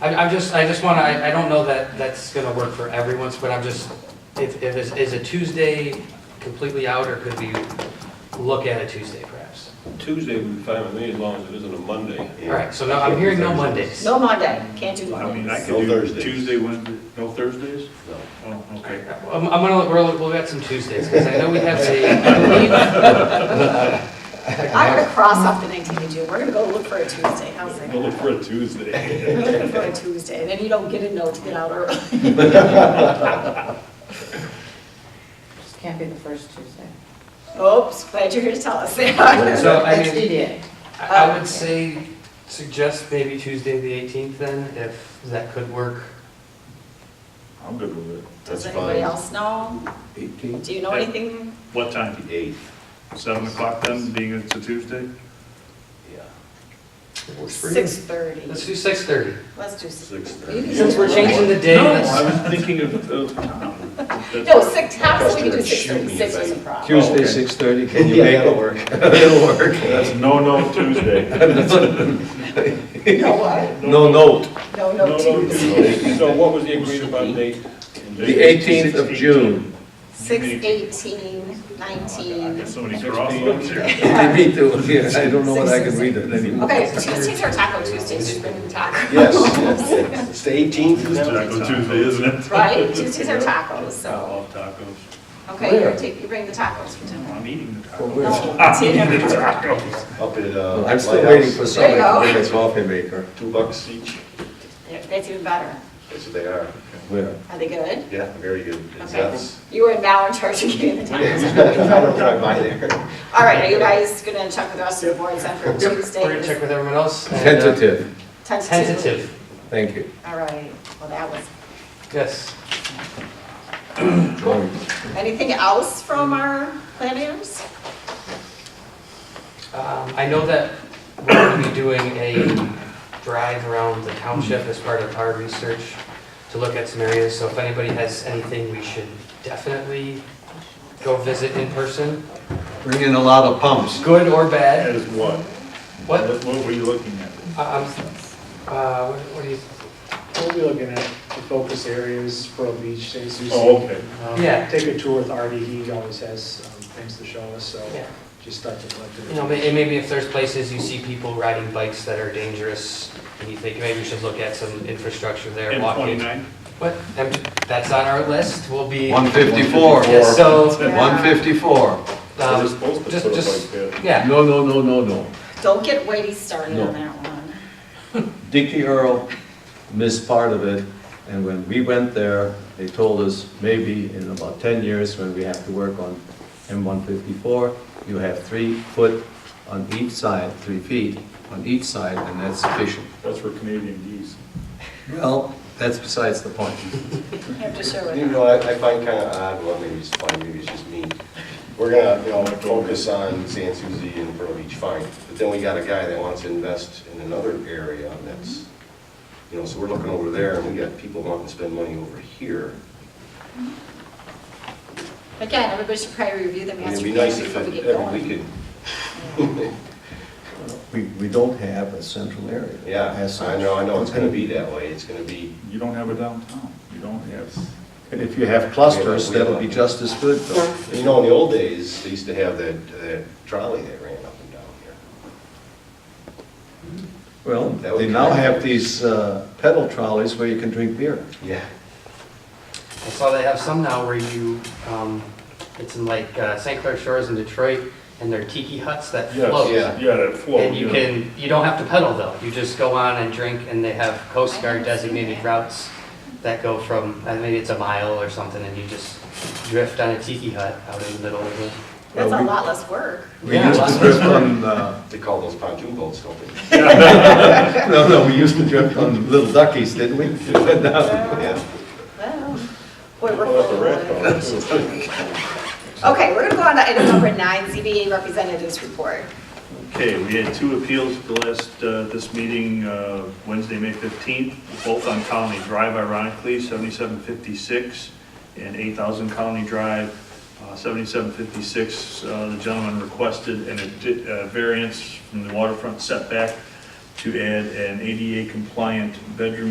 I- I'm just, I just want to, I I don't know that that's going to work for everyone's, but I'm just, if, if, is- is a Tuesday completely out, or could we look at a Tuesday perhaps? Tuesday would be fine with me as long as it isn't a Monday. All right, so no, I'm hearing no Mondays. No Monday, can't do I mean, Monday. No I could do Thursdays. Tuesday, Wednesday, no Thursdays? No. Oh, okay. I'm, I'm gonna, we'll, we'll get some Tuesdays, because I know we have a, I'm gonna cross off the nineteenth of June, we're gonna go look for a Tuesday, how's that? Go look for a Tuesday. We're looking for a Tuesday, and then you don't get a note to get out early. Just can't be the first Tuesday. Oops, glad you're here to tell us that. so I That's mean, DDA. I I would say, suggest maybe Tuesday the 18th then, if that could work. I'm good with it. Does That's anybody fine. else know? Eighteenth? Do you know anything? What time? Eighth, Seven o'clock then, being it's a Tuesday? yeah. Works for you? Six thirty. Let's do 6:30. Let's do six. Six thirty. Since we're changing the day, No, let's- I was thinking of, of. that's- No, six, half, so we can do Shoot six thirty, me six if is a I- problem. Tuesday, Okay. 6:30, can you Yeah, make that'll it work? It'll work. That's no, no Tuesday. No, what? No note. No, No, no no Tuesday. Tuesday. So what was the agreed upon date? The 18th of June. Six, eighteen, nineteen. Oh, Got so many crosswalks here. Me too, yeah, I don't know what I can read it anymore. Okay, Tuesdays are Taco Tuesdays, just bring the taco. Yes, yes. It's the eighteenth Taco Tuesday, isn't it? Right, Tuesdays are tacos, I so, love tacos. okay, you're taking, you bring the tacos for dinner. I'm eating the For tacos. where? I'm dinner. eating the tacos. Up at, uh. I'm still Lighthouse. waiting for There somebody you go. to bring a coffee maker. Two bucks each. Yeah, That's even better. Yes, they are. Where? Are they good? Yeah, very good. It's Okay. us. You are now in charge of getting the tacos. I don't drive by there. All right, are you guys gonna check with the rest of the boards then for Yep, Tuesday? We're gonna check with everyone else. and, uh, Tentative, Tentative. Tentative, thank you. All right, well, that was, yes. anything else from our planners? Um, I know that we're gonna be doing a drive around the township as part of our research to look at some areas, so if anybody has anything, we should definitely go visit in person, Bring in a lot of pumps. good or bad. As what? What, What were you looking at? I- I'm, uh, what what do you, We'll be looking at the focus areas, Pearl Beach, St. Susie. Oh, okay. Um, Yeah. Take a tour with Artie, he always has um, things to show us, so yeah. just start to collect it. You know, may- and maybe if there's places you see people riding bikes that are dangerous, and you think maybe we should look at some infrastructure there, And walking. twenty-nine? What, and that's on our list, we'll be, 154. Yes, so, 154. um, They're supposed to just- put up just- like that. yeah, No, no, no, no, no. Don't get weighty started No. on that one. Dickie Earl missed part of it, and when we went there, they told us, maybe in about 10 years, when we have to work on M154, you have three foot on each side, three feet on each side, and that's sufficient. That's for Canadian geese. Well, that's besides the point. You have to share with You them. know, I, I find kind of odd, well, maybe it's fine, maybe it's just me. We're gonna, you know, focus on San Suzy and Pearl Beach, fine. But then we got a guy that wants to invest in another area that's, you know, so we're looking over there and we got people wanting to spend money over here. Again, everybody should probably review the I mean, it'd master be plan nice if before we every get every going. weekend, We, we don't have a central area. yeah, as I such. know, I know, it's gonna be that way, it's gonna be, You don't have a downtown. You don't have. And if you have clusters, that'll be just as good, though. you know, in the old days, they used to have that, that trolley that ran up and down here. Well, they now have these uh, pedal trolleys where you can drink beer. Yeah. I saw they have some now where you, um, it's in like, uh, St. Clair Shores in Detroit, and they're tiki huts that float. yeah. Yes, yeah, that flow. And you yeah. can, you don't have to pedal though, you just go on and drink, and they have Coast Guard designated routes that go from, I mean, it's a mile or something, and you just drift on a tiki hut out in the middle of the. That's Well, a we- lot less work. We used to drift on, uh, They call those pontoon boats, don't they? no, no, we used to drift on little duckies, didn't we? Yeah. Well, Boy, we're Well, that's a full red of dog. wood. Okay, we're gonna go on to item number nine, ZBA representatives report. Okay, we had two appeals at the last, uh, this meeting, uh, Wednesday, May 15th, both on Colony Drive ironically, 7756 and 8,000 Colony Drive. Uh, 7756, uh, the gentleman requested an addi- uh, variance from the waterfront setback to add an ADA compliant bedroom